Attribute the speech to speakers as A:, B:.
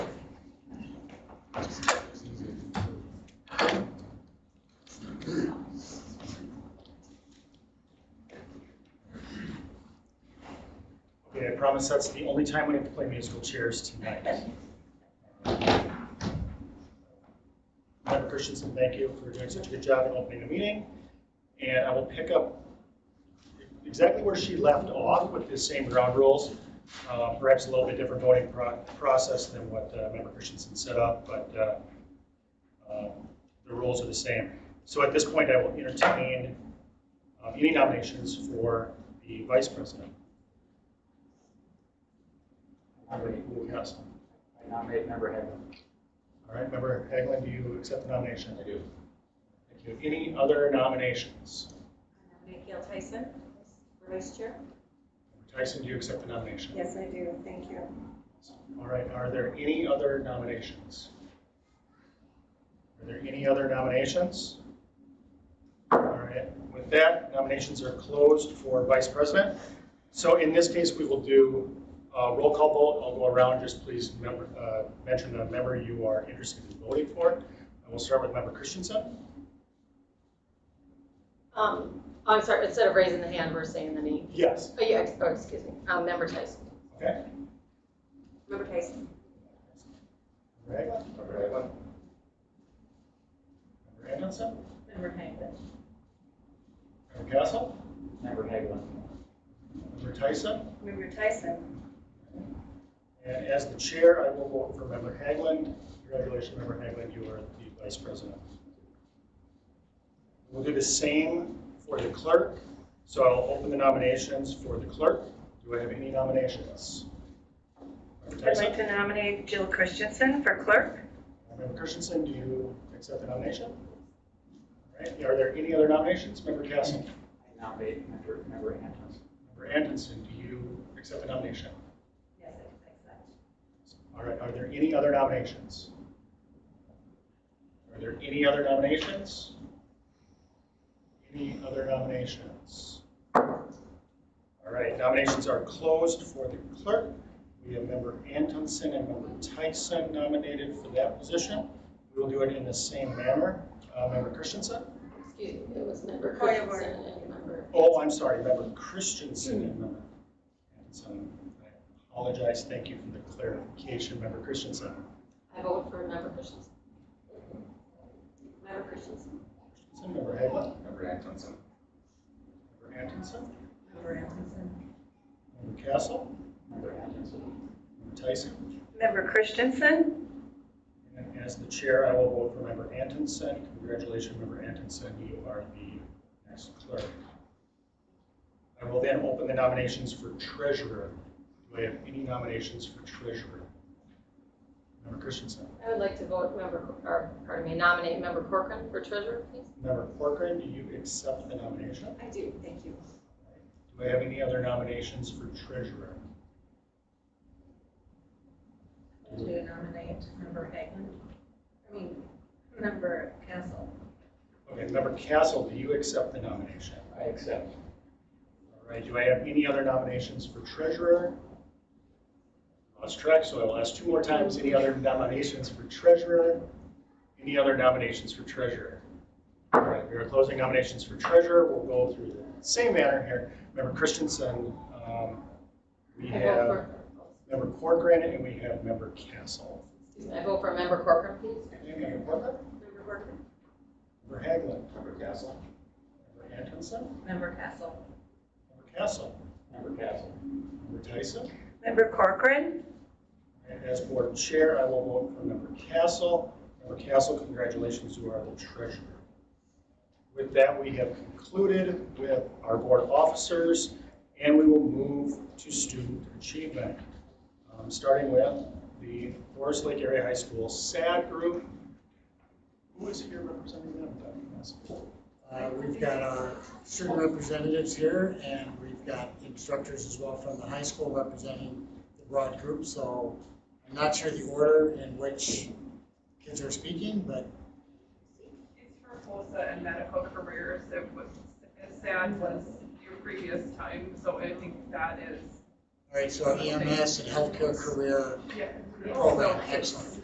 A: Okay, I promise that's the only time we have to play musical chairs tonight. Madam Christensen, thank you for doing such a good job in opening the meeting. And I will pick up exactly where she left off with the same ground rules. Uh, Perhaps a little bit different voting pro- process than what uh, Member Christensen set up, but uh, uh, the rules are the same. So at this point, I will entertain uh, any nominations for the vice president. Yes.
B: I nominate member Haglund.
A: All right, Member Haglund, do you accept the nomination?
B: I do.
A: Thank you. Any other nominations?
C: Uh,
D: Nominate Gail Tyson for vice chair.
A: Tyson, do you accept the nomination?
D: Yes, I do, thank you.
A: All right, are there any other nominations? Are there any other nominations? All right, with that, nominations are closed for vice president. So in this case, we will do a roll call vote. I'll go around, just please remember, uh, mention the member you are interested in voting for. I will start with member Christensen.
E: Um, I'm sorry, instead of raising the hand, we're saying the name.
A: Yes.
E: Oh, yeah, ex- oh, excuse me, um, member Tyson.
A: Okay.
D: Member Tyson.
A: Right. Member Anderson,
D: Member Haglund.
A: member Castle,
B: Member Haglund.
A: member Tyson.
D: Member Tyson.
A: And as the chair, I will vote for member Hagland. Congratulations, member Hagland, you are the vice president. We'll do the same for the clerk. So I'll open the nominations for the clerk. Do I have any nominations? Member
C: I'd like
A: Tyson,
C: to nominate Jill Christensen for clerk.
A: member Christensen, do you accept the nomination? All right, are there any other nominations? Member Castle,
B: I nominate member, member Haglund.
A: member Anderson, do you accept the nomination?
D: Yes, I accept.
A: All right, are there any other nominations? Are there any other nominations? Any other nominations? All right, nominations are closed for the clerk. We have member Antonsen and member Tyson nominated for that position. We will do it in the same manner. Uh, Member Christensen?
E: Excuse me, it was member
D: Point of
E: Christensen and member.
A: Oh, I'm sorry, member Christensen and member Antonsen. I apologize, thank you for the clarification, member Christensen.
E: I vote for member Christensen. Member Christensen.
A: Christensen, member Haglund?
B: Member Haglund.
A: Member Atkinson,
C: Member Anderson.
A: Member Castle,
B: Member Haglund.
A: Member Tyson.
C: Member Christensen.
A: And as the chair, I will vote for Member Atkinson. Congratulations, Member Atkinson, you are the next clerk. I will then open the nominations for treasurer. Do I have any nominations for treasurer? Member Christensen.
E: I would like to vote member, or, pardon me, nominate member Corcoran for treasurer, please.
A: Member Corcoran, do you accept the nomination?
D: I do, thank you.
A: Do I have any other nominations for treasurer?
F: Do you nominate member Hagan? I mean, member Castle?
A: Okay, Member Castle, do you accept the nomination?
B: I accept.
A: All right, do I have any other nominations for treasurer? Lost track, so I will ask two more times. Any other nominations for treasurer? Any other nominations for treasurer? All right, we are closing nominations for treasurer. We'll go through the same manner here. Member Christensen, um, we
E: I vote
A: have
E: for,
A: member Corcoran, and we have member Castle.
E: excuse me, I vote for member Corcoran, please.
A: Member Corcoran,
D: Member Corcoran.
A: member Haglund,
B: Member Castle.
A: member Atkinson,
F: Member Castle?
A: member Castle,
B: Member Castle.
A: member Tyson.
C: Member Corcoran.
A: And as board chair, I will vote for member Castle. Member Castle, congratulations, you are the treasurer. With that, we have concluded with our board officers, and we will move to student achievement. Um, Starting with the Forest Lake Area High School SAD group. Who is here representing them? Dr. Massey?
G: Uh, We've got our student representatives here, and we've got instructors as well from the high school representing the broad group, so I'm not sure the order in which kids are speaking, but
H: It's for FOSA and medical careers, it was, SAD was your previous time, so I think that is,
G: E All right, so EMS and healthcare career
H: yeah.
G: Oh, program, excellent.